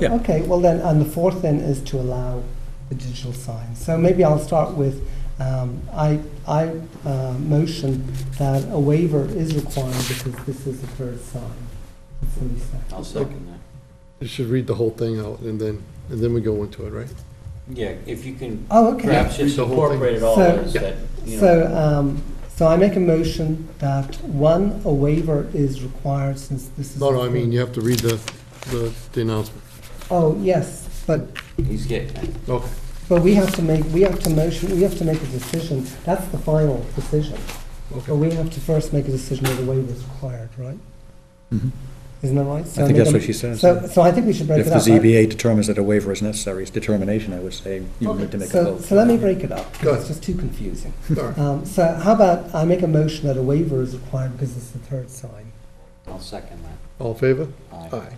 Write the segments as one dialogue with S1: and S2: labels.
S1: Yeah.
S2: Okay, well then, and the fourth then is to allow the digital sign. So maybe I'll start with, um, I, I, uh, motion that a waiver is required because this is the third sign. That's what we said.
S3: I'll second that.
S4: You should read the whole thing out and then, and then we go into it, right?
S3: Yeah, if you can
S2: Oh, okay.
S3: perhaps just
S4: The whole thing.
S3: incorporate it all
S2: So-
S3: as that, you know.
S2: So, um, so I make a motion that, one, a waiver is required since this is.
S4: No,
S2: the
S4: no, I
S2: third-
S4: mean, you have to read the, the, the announcement.
S2: Oh, yes, but,
S3: He's getting it.
S4: Okay,
S2: but we have to make, we have to motion, we have to make a decision. That's the final decision. But
S4: okay.
S2: we have to first make a decision whether waiver is required, right?
S5: Mhm.
S2: Isn't that right? So
S5: I
S2: make
S5: think that's
S2: a-
S5: what she says.
S2: So, so I think we should break
S5: If
S2: it
S5: the
S2: up. right?
S5: ZBA determines that a waiver is necessary, it's determination, I would say, you would need to make a
S2: So,
S5: vote.
S2: so let me break it up,
S4: Go
S2: because
S4: ahead.
S2: it's just too confusing.
S4: All right.
S2: Um, so how about I make a motion that a waiver is required because it's the third sign?
S3: I'll second that.
S4: All in favor?
S3: Aye.
S4: Aye.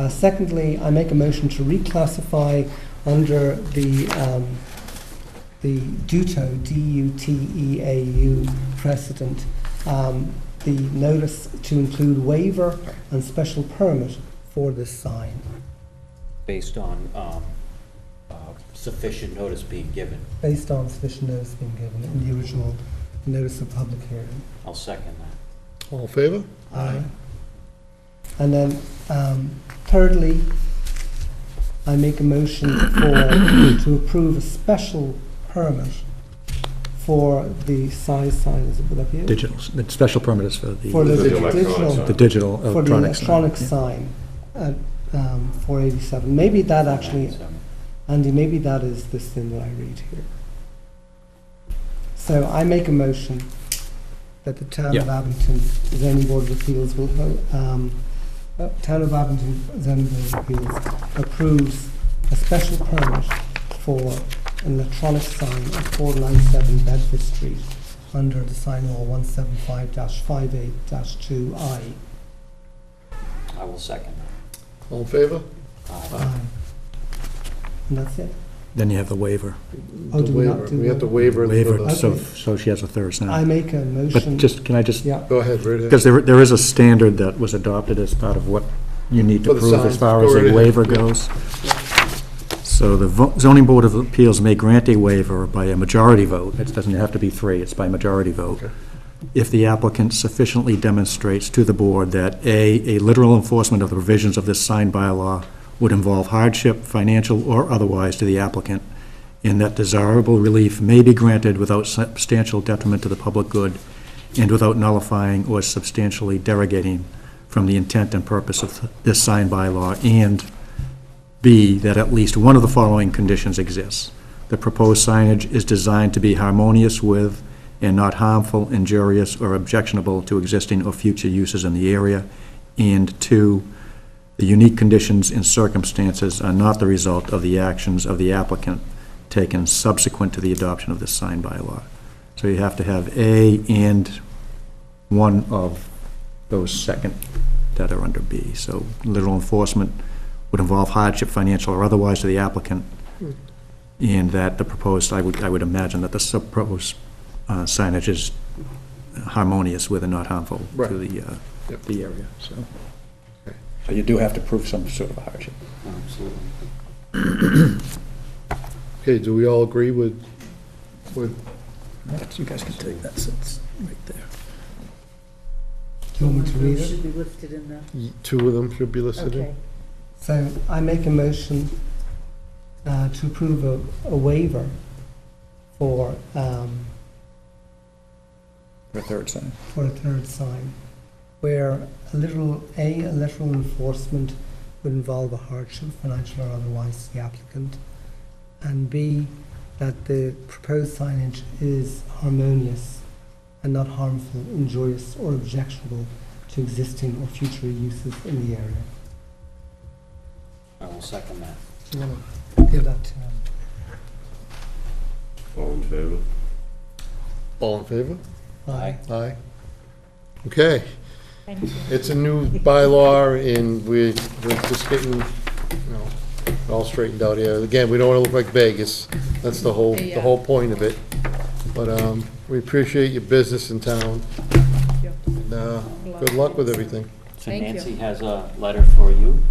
S2: Uh, secondly, I make a motion to reclassify under the, um, the DUTEAU, D-U-T-E-A-U E precedent, um, the notice to include waiver and special permit for this sign,
S3: Based on um, uh, sufficient notice being given,
S2: based on sufficient notice being given in the original notice of public hearing.
S3: I'll second that.
S4: All in favor?
S2: Aye. And then, um, thirdly, I make a motion for, to approve a special permit for the size sign, is it, would that be it?
S5: Digital, the special permit is for the,
S2: For the
S6: For the electronic
S2: digital,
S6: sign.
S5: the digital
S2: for the
S5: electronic sign.
S2: electronic sign at, um, four eighty-seven. Maybe that actually,
S3: So,
S2: Andy, maybe that is this thing that I read here. So I make a motion that the Town of Abington zoning board of appeals will, ho- um, uh, Town of Abington zoning board of appeals approves a special permit for an electronic sign at four nine seven Bedford Street under the sign law one seven five dash five eight dash two I.
S3: I will second
S4: All in favor?
S3: that. Aye.
S2: And that's it.
S5: Then you have the waiver,
S2: Oh,
S4: The
S2: do we not
S4: waiver.
S2: do
S4: We have
S2: the-
S4: to waiver. it for
S5: waiver,
S4: the-
S5: so,
S2: Okay.
S5: so she has a third
S2: I
S5: now.
S2: make a
S5: But
S2: motion,
S5: just, can I just,
S2: yeah,
S4: Go ahead, read
S5: because
S4: it.
S5: there, there is a standard that was adopted as part of what you need to
S4: For the
S5: prove
S4: signs,
S5: as far
S4: go
S5: as
S4: right
S5: a
S4: ahead.
S5: waiver goes. So the vo- zoning board of appeals may grant a waiver by a majority vote, it doesn't have to be three, it's by majority vote,
S4: Okay.
S5: if the applicant sufficiently demonstrates to the board that, A, a literal enforcement of the provisions of this sign bylaw would involve hardship, financial or otherwise, to the applicant, and that desirable relief may be granted without substantial detriment to the public good and without nullifying or substantially derogating from the intent and purpose of this sign bylaw, and B, that at least one of the following conditions exists. The proposed signage is designed to be harmonious with and not harmful, injurious, or objectionable to existing or future uses in the area. And two, the unique conditions and circumstances are not the result of the actions of the applicant taken subsequent to the adoption of this sign bylaw. So you have to have A and one of those second that are under B. So literal enforcement would involve hardship, financial or otherwise, to the applicant, and that the proposed, I would, I would imagine that the sub- proposed uh, signage is harmonious with and not harmful
S4: Right.
S5: to the, uh,
S4: Yep.
S5: the area, so. So you do have to prove some sort of hardship.
S3: Uh, Absolutely.
S4: Okay, do we all agree with, with,
S5: You guys can take that, it's right there.
S2: do you want me to read it?
S7: Should be lifted in the,
S4: y- two of them should be listed in?
S7: okay.
S2: So I make a motion uh, to approve a a waiver for, um,
S5: For a third sign.
S2: for a third sign, where a literal, A, a literal enforcement would involve a hardship, financial or otherwise, to the applicant, and B, that the proposed signage is harmonious and not harmful, injurious, or objectionable to existing or future uses in the area.
S3: I will second that.
S2: Do you want to give that to him?
S6: All in favor?
S4: All in favor?
S3: Aye.
S4: Aye. Okay,
S7: Thank you.
S4: it's a new bylaw, and we're, we're just getting, you know, it all straightened out here. Again, we don't wanna look like Vegas, that's the whole, the whole point of it. But, um, we appreciate your business in town.
S7: Yep.
S4: And, uh, good luck with everything.
S3: So
S7: Thank you.
S3: Nancy has a letter for you